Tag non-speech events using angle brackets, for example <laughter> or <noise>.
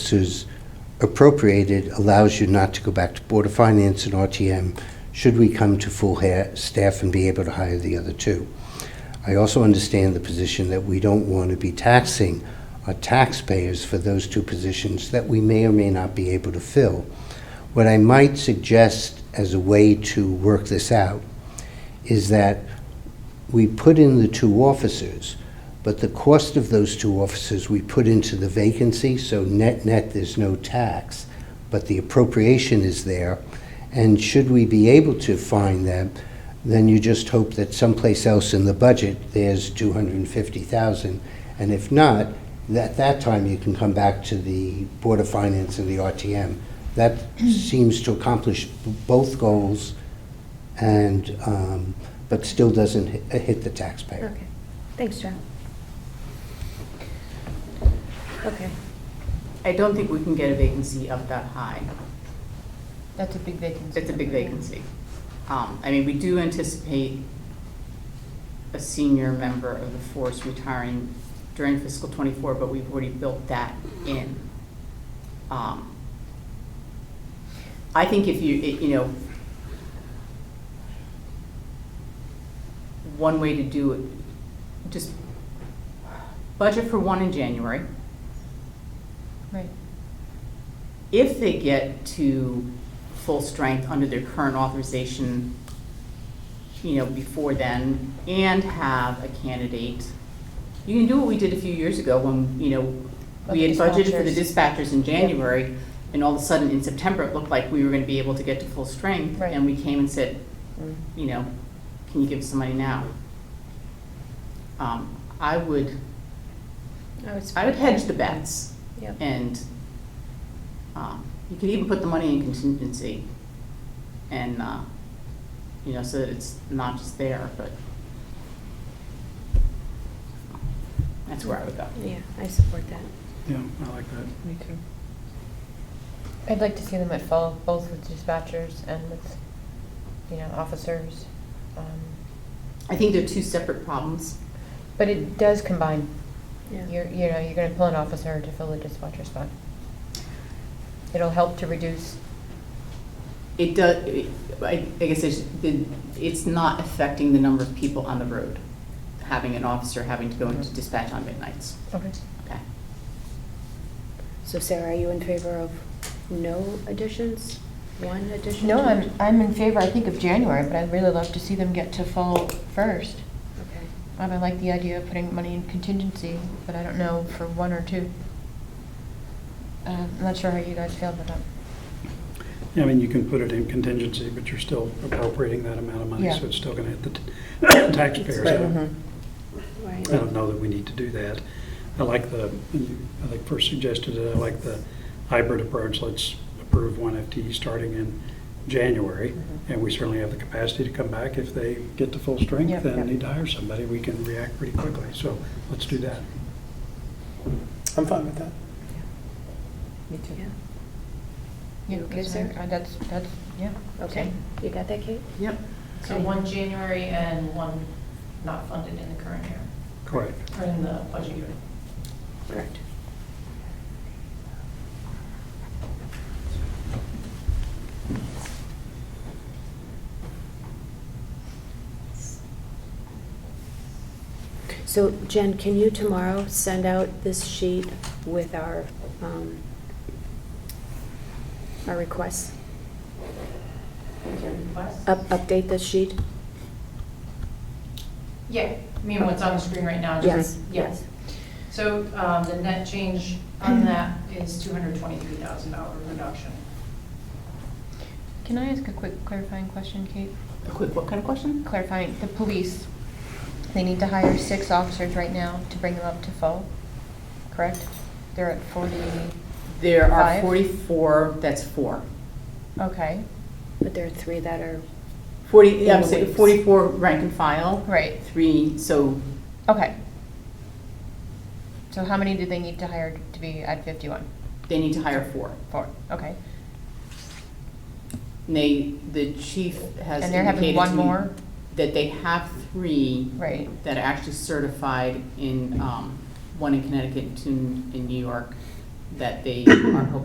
is appropriated allows you not to go back to Board of Finance and RTM should we come to full ha- staff and be able to hire the other two. I also understand the position that we don't want to be taxing our taxpayers for those two positions that we may or may not be able to fill. What I might suggest as a way to work this out is that we put in the two officers, but the cost of those two officers we put into the vacancy, so net-net, there's no tax, but the appropriation is there. And should we be able to find them, then you just hope that someplace else in the budget, there's 250,000. And if not, at that time, you can come back to the Board of Finance and the RTM. That seems to accomplish b- both goals and, um, but still doesn't hi- hit the taxpayer. Okay, thanks, John. Okay, I don't think we can get a vacancy up that high. That's a big vacancy. It's a big vacancy. Um, I mean, we do anticipate a senior member of the force retiring during fiscal twenty-four, but we've already built that in. Um, I think if you, it- you know, one way to do it, just budget for one in January. Right. if they get to full strength under their current authorization, you know, before then, and have a candidate, you can do what we did a few years ago when, you know, we had Like budgeted for the dispatchers in Yep. January, and all of a sudden in September, it looked like we were gonna be able to get to full strength. Right. And we came and said, Mm. you know, can you give us some money now? Um, I would, I was. I would hedge the bets. Yep. And um, you could even put the money in contingency and, uh, you know, so that it's not just there, but that's where I would go. Yeah, I support that. Yeah, I like that. Me too. I'd like to see them at full, both with dispatchers and with, you know, officers. um, I think they're two separate problems. But it does combine. Yeah. You're, you know, you're gonna pull an officer to fill the dispatcher spot. It'll help to reduce, It does, I I guess it's, the- it's not affecting the number of people on the road, having an officer having to go into dispatch on midnights. okay, Okay. So Sarah, are you in favor of no additions, one addition? no, I'm, I'm in favor, I think, of January, but I'd really love to see them get to fall first. Okay. Um, I like the idea of putting money in contingency, but I don't know for one or two. Um, I'm not sure how you guys feel about that. Yeah, I mean, you can put it in contingency, but you're still appropriating that amount of money, Yeah. mm-hmm. so it's still going to hit the t- <coughs> taxpayers. I don't- Right. I don't know that we need to do that. I like the, I think first suggested, it, I like the hybrid approach. Let's approve one FTE starting in January, and we certainly have the capacity to come back if they get to full Yep, strength yep. and need to hire somebody, we can react pretty quickly. So let's do that. I'm fine with that. Me Yeah. Yeah, You okay, that's sir? fine. Uh, That's, that's, yeah. Okay, same. you got that, Kate? Yep. So one January and one not funded in the current year, Correct. or in the budget year. Correct. So Jen, can you tomorrow send out this sheet with our, um, our requests? Is there a request? Up, update this sheet? Yeah, I mean, what's on the screen right now. just- Yes. So um, the net change on that is $223,000 reduction. Can I ask a quick clarifying question, Kate? A quick, what kind of question? Clarifying, the police, they need to hire six officers right now to bring them up to full, correct? They're at forty, There are Five. 44, that's four. okay, But there are three that are, 40, In I'm the saying weeks. 44 rank and file. right, Three, so okay. So how many do they need to hire to be at fifty-one? they need to hire four. Four, okay. And they, the chief has And they're having indicated one to me more? that they have three Right. that are actually certified in, um, one in Connecticut, two in in New York, that they are hoping